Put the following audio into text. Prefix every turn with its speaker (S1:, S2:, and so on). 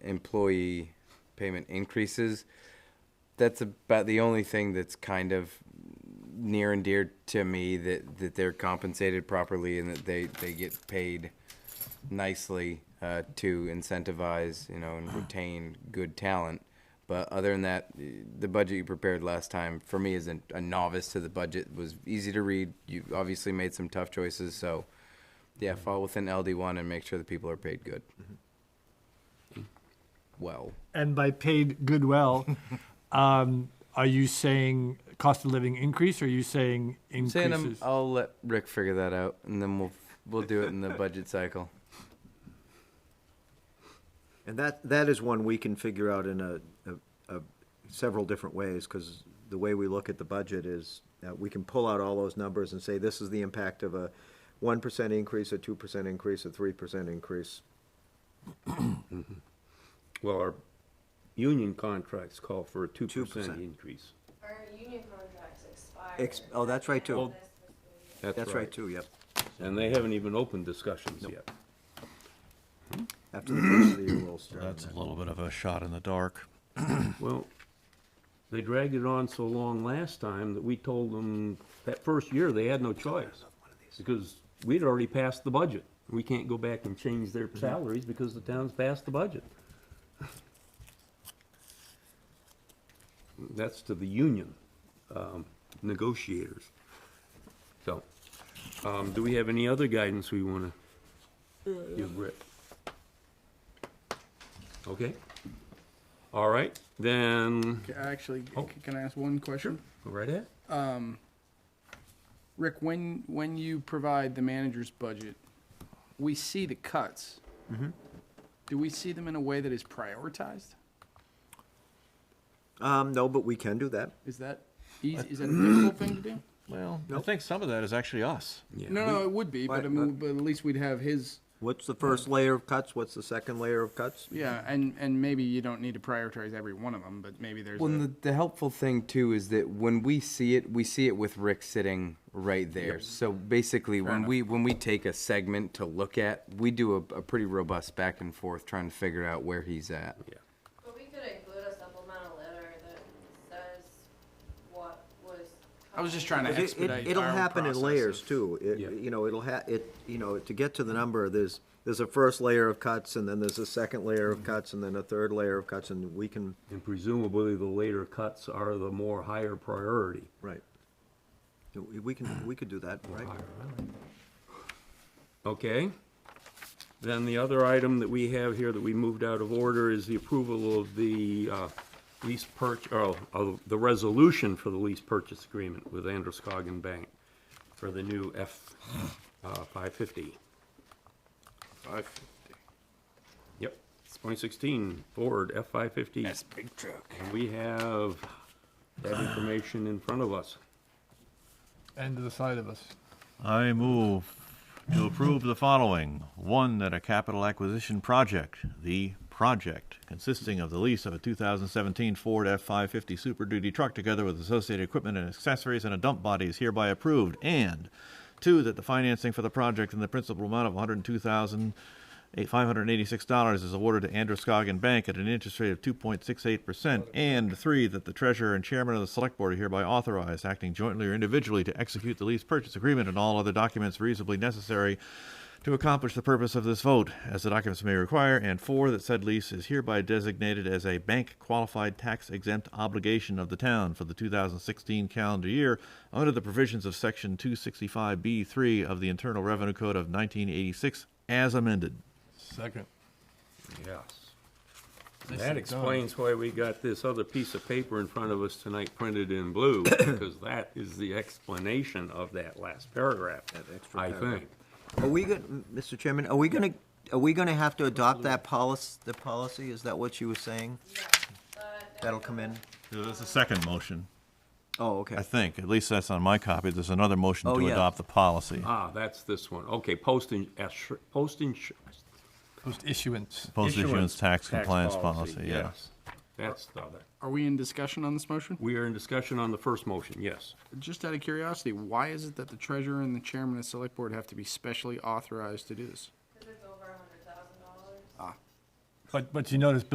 S1: employee payment increases. That's about the only thing that's kind of near and dear to me that, that they're compensated properly and that they, they get paid nicely uh, to incentivize, you know, and retain good talent. But other than that, the budget you prepared last time for me as a, a novice to the budget was easy to read. You obviously made some tough choices, so yeah, fall within LD one and make sure the people are paid good. Well,
S2: and by paid goodwill, um, are you saying cost of living increase or are you saying
S1: saying I'm,
S2: increases?
S1: I'll let Rick figure that out, and then we'll we'll do it in the budget cycle.
S3: And that, that is one we can figure out in a, a, a several different ways, because the way we look at the budget is, uh, we can pull out all those numbers and say, this is the impact of a one percent increase, a two percent increase, a three percent increase.
S4: Well, our union contracts call for a two
S3: 2%.
S4: percent increase.
S5: Our union contracts expire.
S3: Ex- oh, that's right, too.
S5: At the end of this fiscal year.
S3: That's right, too, yep,
S4: And they haven't even opened discussions yet.
S3: after the first of the year, we'll start. on
S6: That's
S3: that.
S6: a little bit of a shot in the dark.
S4: Well, they dragged it on so long last time that we told them that first year they had no choice. Because we'd already passed the budget. We can't go back and change their salaries because the town's passed the budget. That's to the union, um, negotiators. So, um, do we have any other guidance we wanna give Rick? Okay? All right, then,
S7: Okay, Actually,
S4: Oh.
S7: can I ask one question?
S4: go right ahead.
S7: Rick, when, when you provide the manager's budget, we see the cuts. Do we see them in a way that is prioritized?
S3: Um, no, but we can do that.
S7: Is that easy, is that a difficult thing to do?
S6: Well, I think some of that is actually us.
S7: No, no, it would be, but I
S3: Right,
S7: mean, but at least we'd have his,
S3: What's the first layer of cuts, what's the second layer of cuts?
S7: yeah, and, and maybe you don't need to prioritize every one of them, but maybe there's
S1: Well, and
S7: a-
S1: the, the helpful thing too is that when we see it, we see it with Rick sitting right there. So basically, when we when we take a segment to look at, we do a, a pretty robust back and forth trying to figure out where he's at.
S4: Yeah.
S5: But we could include a supplemental letter that says what was.
S7: I was just trying to
S3: It- it-
S7: expedite
S3: It'll
S7: our own
S3: happen in
S7: process
S3: layers
S7: of-
S3: too. It,
S4: Yeah.
S3: you know, it'll ha, it, you know, to get to the number, there's, there's a first layer of cuts and then there's a second layer
S7: Mm-hmm.
S3: of cuts and then a third layer of cuts and we can,
S4: And presumably the later cuts are the more higher priority.
S3: right. We we can, we could do that, right?
S4: Okay. Then the other item that we have here that we moved out of order is the approval of the uh, lease purch, or of the resolution for the lease purchase agreement with Androscoggin Bank for the new F uh, 550.
S1: Five.
S4: Yep, it's 2016 Ford F 550.
S1: big truck.
S4: And we have that information in front of us.
S2: and to the side of us.
S6: I move to approve the following. One, that a capital acquisition project, the project, consisting of the lease of a 2017 Ford F-550 Super Duty truck together with associated equipment and accessories and a dump body is hereby approved. And two, that the financing for the project in the principal amount of $102,586 is awarded to Androscoggin Bank at an interest rate of 2.68%. And three, that the treasurer and chairman of the select board are hereby authorized, acting jointly or individually, to execute the lease purchase agreement and all other documents reasonably necessary to accomplish the purpose of this vote, as the documents may require, and four, that said lease is hereby designated as a bank qualified tax exempt obligation of the town for the 2016 calendar year under the provisions of Section 265B3 of the Internal Revenue Code of 1986 as amended.
S2: Second.
S4: Yes. That
S2: and
S4: explains why we got this other piece of paper in front of us tonight printed in blue, because that is the explanation of that last paragraph,
S3: That extra
S4: I
S3: paragraph.
S4: think.
S3: Are we going, Mr. Chairman, are we gonna, are we gonna have to adopt that policy, the policy? Is that what you were saying? That'll come in?
S6: So That's a second motion,
S3: Oh, okay.
S6: I think. At least that's on my copy. There's another motion
S3: Oh,
S6: to
S3: yeah.
S6: adopt the policy.
S4: Ah, that's this one. Okay, posting, postage.
S2: Post issuance.
S6: Post issuance tax compliance policy, yeah.
S4: That's the other.
S7: Are we in discussion on this motion?
S4: We are in discussion on the first motion, yes.
S7: Just out of curiosity, why is it that the treasurer and the chairman of select board have to be specially authorized to do this?
S5: Cause it's over a hundred thousand dollars.
S2: But, but you notice